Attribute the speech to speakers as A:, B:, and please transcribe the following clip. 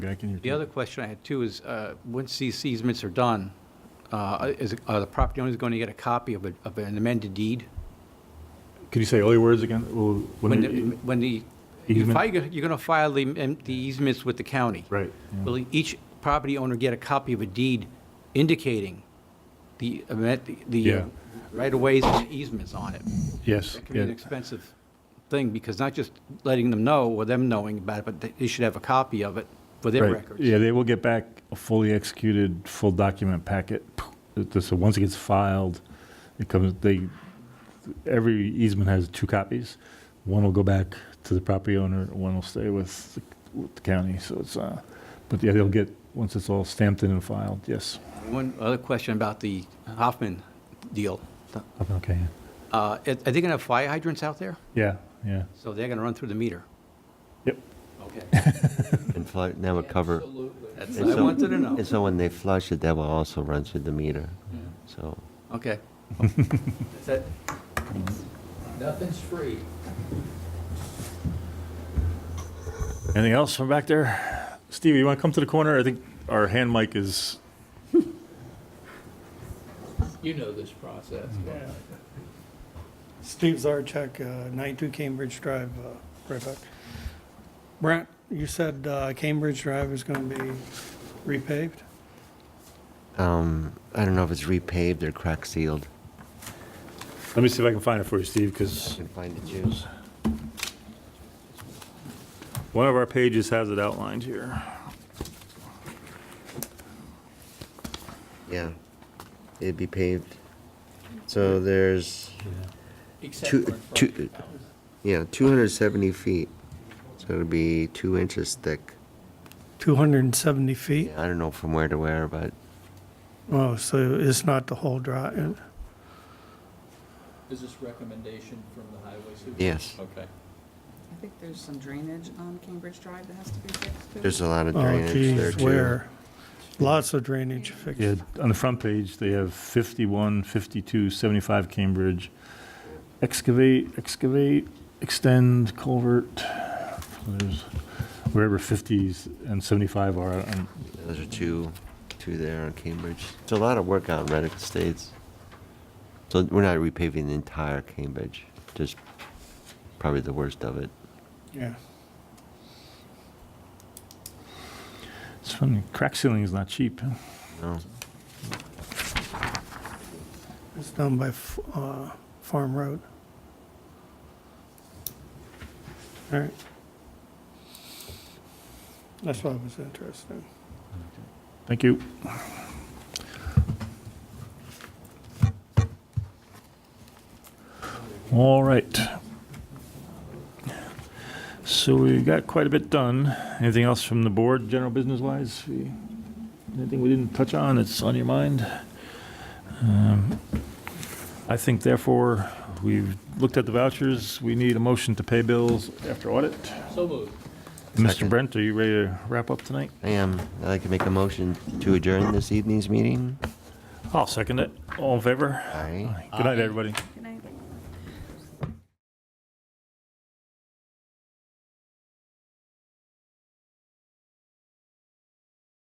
A: Guy, can you?
B: The other question I had too is, uh, once these easements are done, uh, is, are the property owners going to get a copy of a- of an amended deed?
A: Can you say all your words again? Well,
B: When
A: when
B: the,
A: you-
B: when the, you
A: Easement?
B: fi- you're going to file the um, the easements with the county.
A: Right. yeah.
B: Will each property owner get a copy of a deed indicating the, amen- the
A: Yeah.
B: uh, right-of-ways and easements on it?
A: Yes.
B: That can be an
A: yeah.
B: expensive thing, because not just letting them know or them knowing about it, but they- they should have a copy of it for their
A: Right.
B: records.
A: Yeah, they will get back a fully executed, full document packet. So once it gets filed, it comes, they, every easement has two copies. One will go back to the property owner, one will stay with the- with the county, so it's, uh, but yeah, they'll get, once it's all stamped in and filed, yes.
B: One other question about the Hoffman deal.
A: Okay.
B: Uh, Are are they going to have fire hydrants out there?
A: Yeah, yeah.
B: So they're going to run through the meter?
A: Yep.
B: Okay.
C: And flush, that would cover.
B: That's
C: and
B: what I
C: so-
B: wanted to know.
C: And so when they flush it, that will also run through the meter, so.
B: Okay. That's it. Nothing's free.
A: Anything else from back there? Stevie, you want to come to the corner? I think our hand mic is,
D: You know this process.
C: Mm-hmm.
E: Steve Zarchek, uh, 92 Cambridge Drive, uh, right back. Brent, you said uh, Cambridge Drive is going to be repaved?
C: Um, I don't know if it's repaved or crack sealed.
A: let me see if I can find it for you, Steve,
C: I
A: because
C: can find the juice.
A: one of our pages has it outlined here.
C: Yeah, it'd be paved. So there's
D: Except
C: two,
D: for in front of
C: two,
D: the house.
C: yeah, two hundred seventy feet. So it'll be two inches thick.
E: 270 feet?
C: I don't know from where to where, but
E: Oh, so it's not the whole uh, drive?
D: Is this recommendation from the highway supervisor?
C: Yes.
D: Okay.
F: I think there's some drainage on Cambridge Drive that has to be fixed too.
C: there's a lot of
E: Oh,
C: drainage there
E: geez,
C: too.
E: where? Lots of drainage fixed.
A: Yeah, on the front page, they have 51, 52, 75 Cambridge. Excavate, excavate, extend, culvert. So There's wherever 50s and 75 are. and-
C: Those are two, two there on Cambridge. It's a lot of work out in Reddick Estates. So we're not repaving the entire Cambridge, just probably the worst of it.
E: Yeah.
A: It's funny, crack sealing is not cheap. huh?
C: No,
E: It's down by F- uh, Farm Road. All right. That's what I was interested in.
A: Thank you. All right. So we got quite a bit done. Anything else from the board, general business wise? We- Anything we didn't touch on that's on your mind? Um, I think therefore, we've looked at the vouchers. We need a motion to pay bills after audit.
D: So moved.
A: Mr.
C: Second.
A: Brent, are you ready to wrap up tonight?
C: I am. I'd like to make a motion to adjourn this evening's meeting.
A: I'll second it. All in favor?
C: Aye.
A: Good night, everybody.